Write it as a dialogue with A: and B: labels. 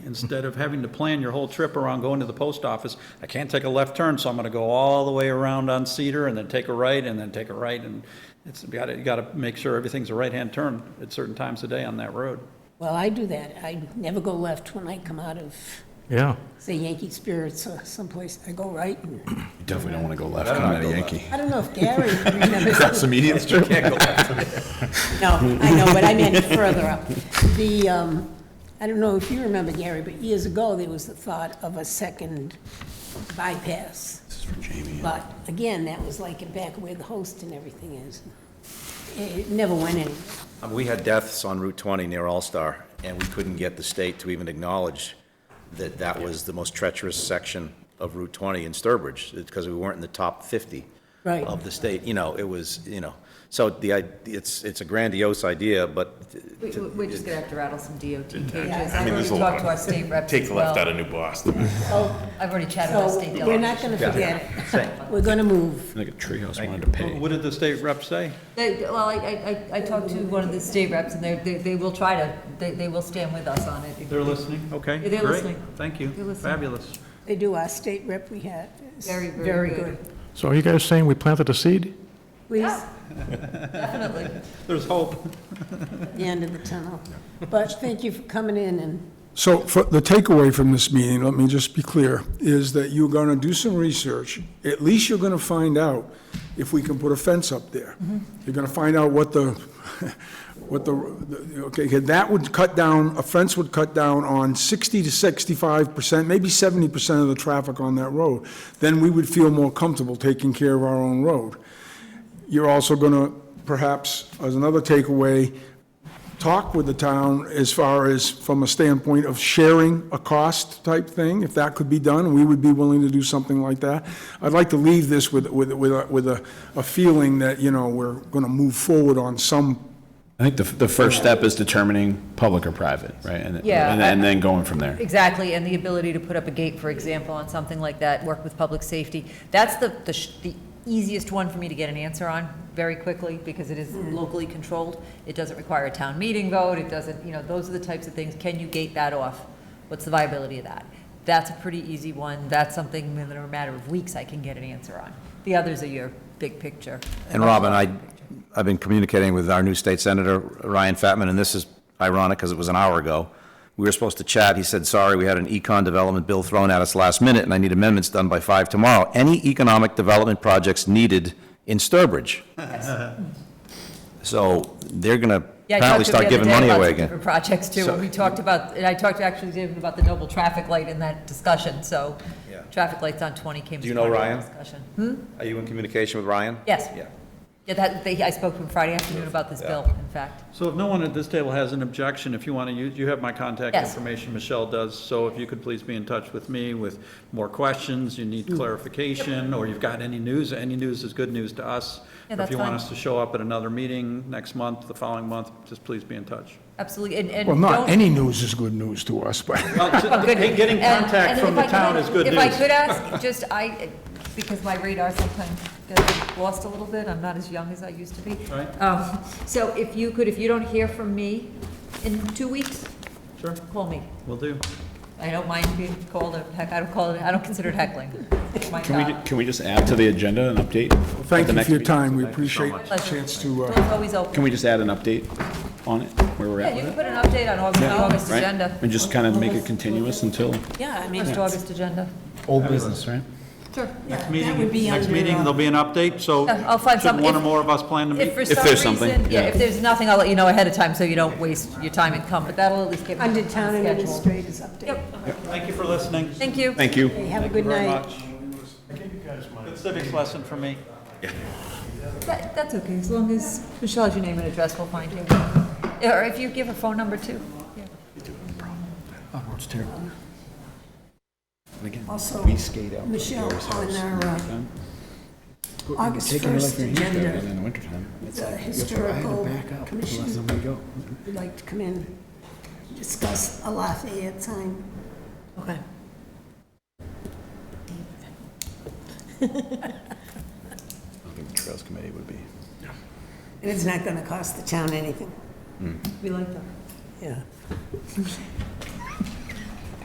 A: instead of having to plan your whole trip around going to the post office, I can't take a left turn, so I'm gonna go all the way around on Cedar and then take a right and then take a right and it's, you gotta, you gotta make sure everything's a right-hand turn at certain times of day on that road.
B: Well, I do that. I never go left when I come out of,
C: Yeah.
B: say Yankee Spirits or someplace. I go right. and-
D: You definitely don't want to go left coming out of Yankie.
B: I don't know if Gary remembers.
D: That's immediate. You can't go left.
B: No, I know, but I meant further up. The, um, I don't know if you remember, Gary, but years ago, there was the thought of a second bypass.
D: This is for Jamie.
B: But again, that was like back where the host and everything is. It it never went anywhere.
E: Um, We had deaths on Route 20 near All-Star, and we couldn't get the state to even acknowledge that that was the most treacherous section of Route 20 in Sturbridge, because we weren't in the top 50
B: Right.
E: of the state, you know, it was, you know, so the, i- it's, it's a grandiose idea, but
F: We, we- we're just gonna have to rattle some DOT pages.
B: Yeah.
F: I've already
C: there's a lot
F: talked to
C: of-
F: our state reps
C: Take
F: as
C: the left out
F: well. Oh,
C: of New Boston.
F: I've already chatted with our
B: So
F: state
B: we're not
F: delegation.
B: going to forget it. We're going to move.
D: Like a treehouse wanted to pay.
A: What did the state rep say?
F: They, well, I, I, I- I talked to one of the state reps and they, they, they will try to, they, they will stand with us on it.
A: They're listening, okay?
F: Yeah, they're
A: great.
F: listening.
A: Thank you.
F: They're listening.
A: Fabulous.
B: They do, our state rep we had. is
F: Very, very good.
C: So are you guys saying we planted a seed?
B: Please,
F: Definitely.
A: There's hope.
B: the end of the tunnel. But thank you for coming in and,
G: So for the takeaway from this meeting, let me just be clear, is that you're going to do some research. At least you're going to find out if we can put a fence up there. You're going to find out what the, what the, okay, okay, that would cut down, a fence would cut down on 60 to 65%, maybe 70% of the traffic on that road. Then we would feel more comfortable taking care of our own road. You're also going to, perhaps, as another takeaway, talk with the town as far as from a standpoint of sharing a cost type thing, if that could be done, we would be willing to do something like that. I'd like to leave this with, with, with, a- with a, a feeling that, you know, we're gonna move forward on some,
D: I think the, the first step is determining public or private, right? And, and
F: Yeah, I-
D: and then going from there.
F: Exactly, and the ability to put up a gate, for example, on something like that, work with public safety. That's the, the sh- the easiest one for me to get an answer on very quickly, because it is locally controlled. It doesn't require a town meeting vote, it doesn't, you know, those are the types of things, can you gate that off? What's the viability of that? That's a pretty easy one, that's something in a matter of weeks I can get an answer on. The others are your big picture.
E: And Robin, I, I've been communicating with our new state senator, Ryan Fatman, and this is ironic because it was an hour ago. We were supposed to chat. He said, sorry, we had an econ development bill thrown at us last minute and I need amendments done by five tomorrow. Any economic development projects needed in Sturbridge? So they're going to
F: Yeah, I talked
E: apparently
F: to him
E: start
F: the other
E: giving
F: day
E: money
F: about
E: away
F: some
E: again.
F: different projects too, and we talked about, and I talked to actually David about the Noble traffic light in that discussion, so.
E: Yeah.
F: Traffic lights on 20 came
E: Do
F: to
E: you
F: mind
E: know
F: in
E: Ryan?
F: that discussion. Hmm?
E: Are you in communication with Ryan?
F: Yes.
E: Yeah.
F: Yeah, that, they- I spoke to him Friday afternoon about this bill, in fact.
A: So if no one at this table has an objection, if you want to use, you have my contact
F: Yes.
A: information, Michelle does, so if you could please be in touch with me with more questions, you
F: Mm.
A: need clarification, or you've got any news, any news is good news to us.
F: Yeah,
A: Or If
F: that's
A: you want
F: fine.
A: us to show up at another meeting next month, the following month, just please be in touch.
F: Absolutely, and, and.
G: well, not
F: don't-
G: any news is good news to us, but.
F: Good.
A: Getting
F: And-
A: contact
F: and
A: from
F: if
A: the
F: I could-
A: town is good
F: If I
A: news.
F: could ask, just, I, because my radar sometimes gets lost a little bit, I'm not as young as I used to be.
A: Right.
F: Um, So if you could, if you don't hear from me in two weeks,
A: Sure,
F: call me.
A: will do.
F: I don't mind being called a heck, I don't call it, I don't consider it heckling. It's my
D: Can we,
F: job.
D: can we just add to the agenda an update? at
G: Thank
D: the
G: you
D: next
G: for your
D: meeting?
G: time, we appreciate
A: much.
G: the chance to,
F: Door's
G: uh,
F: always open.
D: Can we just add an update on it, where we're
F: Yeah,
D: at
F: you
D: with
F: can
D: it?
F: put an update on August, the August
D: Right?
F: agenda.
D: And just kind of make it continuous until
B: yeah, I mean,
F: First August agenda.
D: old business, right?
F: Sure.
A: Next
B: would
A: meeting,
B: be
A: next
B: under,
A: meeting,
B: uh,
A: there'll be an update, so
F: Yeah, I'll find
A: should
F: some-
A: one or
F: if-
A: more of us plan to
F: If
A: meet.
F: for some
D: there's something,
F: reason, yeah,
D: yeah.
F: if there's nothing, I'll let you know ahead of time so you don't waste your time and come, but that'll at least get me on
B: under
F: the
B: town
F: schedule.
B: administrators update.
A: Thank you for listening.
F: Thank you.
D: Thank you.
B: Hey, Have a
A: Thank you
B: good
A: very
B: night.
A: much. Good civics lesson for me.
F: That- That's okay, as long as Michelle has your name and address, we'll find you. Yeah, Or if you give a phone number too. Yeah.
B: Also, Michelle, on our uh, August 1st agenda,
D: In the wintertime.
B: the historical commission would like to come in, discuss a Lafayette sign.
F: Okay.
D: I think Trails Committee would be.
B: And it's not going to cost the town anything.
F: We like that.
B: Yeah.